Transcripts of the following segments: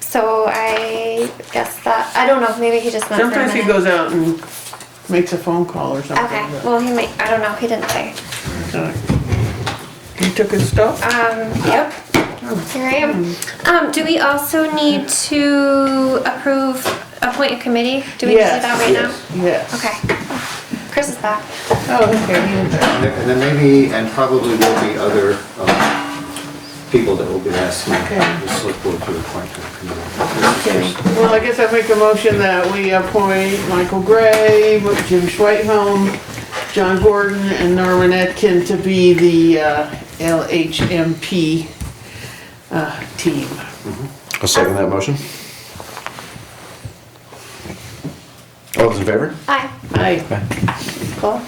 So I guess that, I don't know, maybe he just meant for a Sometimes he minute. goes out and makes a phone call or something. Okay, well, he might, I don't know, he didn't say. Okay. You took his stuff? Um, yep, here I am. Um, do we also need to approve, appoint a committee? Do we need to do Yes. that right now? Yes. Okay. Chris is back. Oh, okay. And there- and there may be, and probably will be other um, people that will be asking the select board to appoint to the Okay. committee. Well, I guess I make a motion that we appoint Michael Gray, Jim Schweithelm, John Gordon, and Norman Etkin to be the uh, LHMP uh, team. I'll second that motion. All those in favor? Hi. Aye. Paul?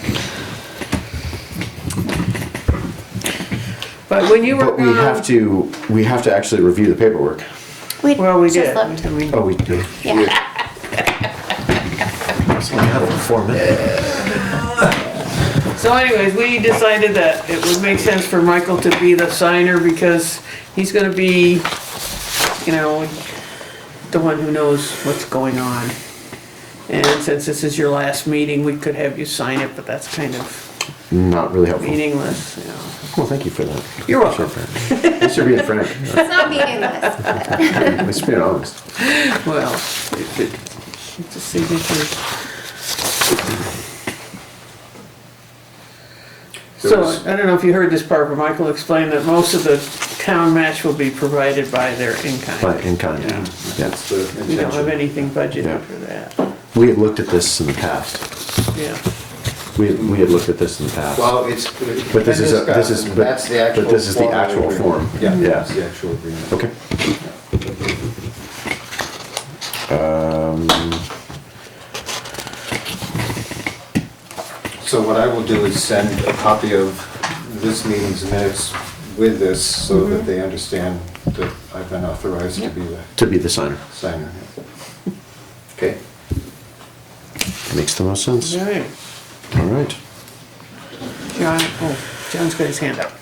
But when you were But we have gone, to, we have to actually review the paperwork. We well, we just did. looked. I mean, Oh, we do. Yeah. It's only had it for four minutes. So anyways, we decided that it would make sense for Michael to be the signer because he's gonna be, you know, the one who knows what's going on. And since this is your last meeting, we could have you sign it, but that's kind of Not really helpful. meaningless, you know. Well, thank you for that. You're welcome. Thanks for being frank. It's not meaningless. At least being honest. Well, it- it- it's a signature. There So, was- I don't know if you heard this part, but Michael explained that most of the town match will be provided by their in-kind. But in kind. Yeah. Yeah. That's the We don't have intention. anything budgeted Yeah. for that, We had looked at this in the past. yeah. We, we had looked at this in the past. Well, it's. But this is a- this is- but- That's the actual. but this is the form of actual agreement. form. Yeah, Yeah. that's the actual agreement. Okay. Um, So what I will do is send a copy of this meeting's minutes with this so that they understand that I've been authorized to be the to be the signer. signer. Okay? Makes the most sense. All right, All right. John, oh, John's got his hand up.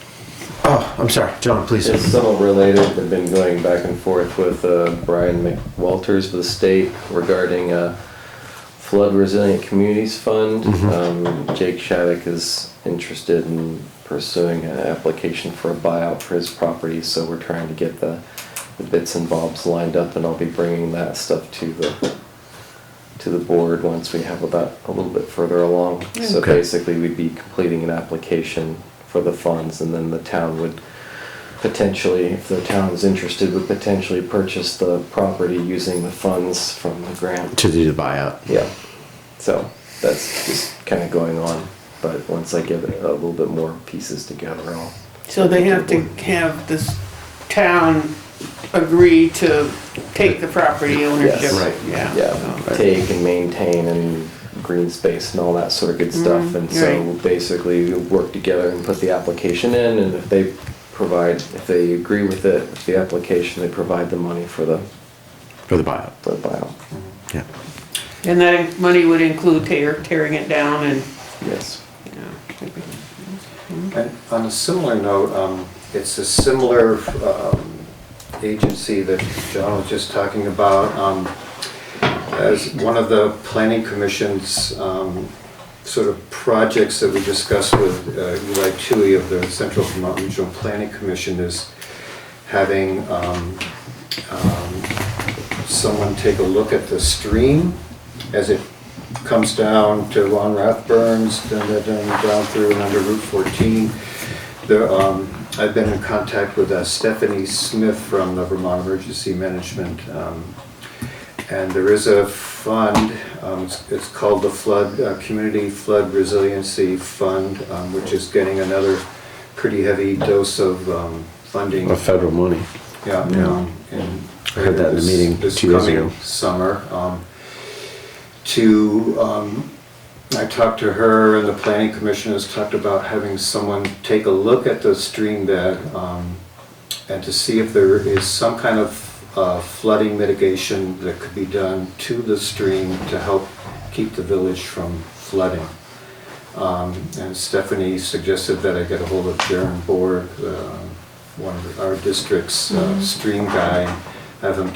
Oh, I'm sorry. John, please. It's somewhat related, they've been going back and forth with uh, Brian McWalters with the state regarding uh, flood resilient communities fund. Um, Jake Shattuck is interested in pursuing an application for a buyout for his property, so we're trying to get the the bits and bobs lined up, and I'll be bringing that stuff to the, to the board once we have that a little bit further along. So Okay. basically, we'd be completing an application for the funds, and then the town would potentially, if the town is interested, would potentially purchase the property using the funds from the grant. To do the buyout. Yeah, so that's just kind of going on, but once I get a little bit more pieces together, I'll. So they have to have this town agree to take the property ownership. Yes. Right. Yeah. yeah, so- take and maintain and green space and all that sort of good stuff. And so right. basically we work together and put the application in and if they provide, if they agree with it, with the application, they provide the money for the, For the buyout. for the buyout. Yeah. And that money would include tear, tearing it down and, Yes. you know, And on a similar note, um, it's a similar um, agency that John was just talking about. um, As one of the planning commission's um, sort of projects that we discussed with uh, Eli Tui of the Central Vermont Regional Planning Commission is having um, um, someone take a look at the stream as it comes down to Ron Rathburns, then then- then down through and under Route 14. There, um, I've been in contact with uh, Stephanie Smith from the Vermont Emergency Management. um, And there is a fund, um, it's- it's called the Flood, uh, Community Flood Resiliency Fund, um, which is getting another pretty heavy dose of um, funding. Of federal money. Yeah, um, and. I heard that in the this- meeting this two years coming ago. Summer, um, to, um, I talked to her and the planning commission has talked about having someone take a look at the stream bed, um, and to see if there is some kind of uh, flooding mitigation that could be done to the stream to help keep the village from flooding. Um, And Stephanie suggested that I get a hold of Darren Board, um, one of our district's uh, stream uh, guy, have him